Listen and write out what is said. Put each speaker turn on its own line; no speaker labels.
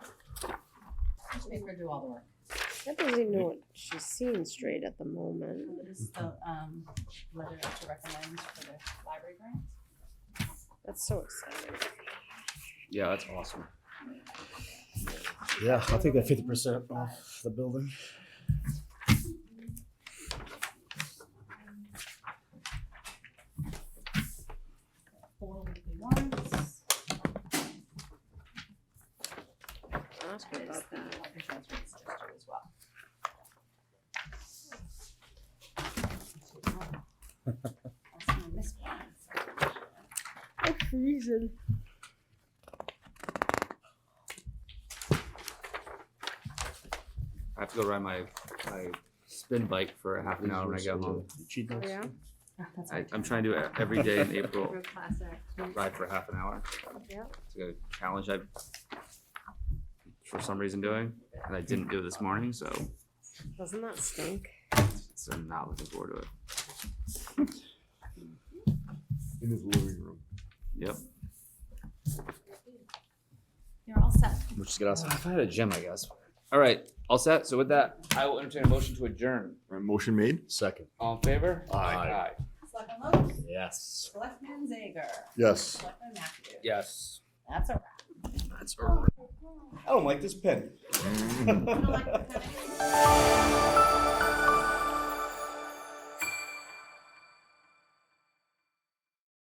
make her do all the work.
That doesn't even know what she's seeing straight at the moment.
This is the, um, letter to recommend for the library grant.
That's so exciting.
Yeah, that's awesome.
Yeah, I think they're fifty percent off the building.
Four weekly warrants.
Ask her
It's
about
the
that.
library transfer is just due as well. That's my missed one.
That's reason.
I have to go ride my my spin bike for a half an hour when I get home.
Cheat notes.
Yeah.
That's
I,
my
I'm trying to do it every day in April.
Real classic.
Ride for half an hour.
Yeah.
It's a challenge I for some reason doing, and I didn't do it this morning, so
Doesn't that stink?
so I'm not looking forward to it.
in his living room.
Yep.
You're all set.
Which is good. Awesome.
If I had a gym, I guess. All right, all set. So with that, I will entertain a motion to adjourn.
Right, motion made?
Second.
All in favor?
Aye.
Selectman Lopes,
Yes.
Selectman Zager,
Yes.
Selectman Matthews.
Yes.
That's a wrap.
That's all right.
I don't like this pen.
You don't like the kind of-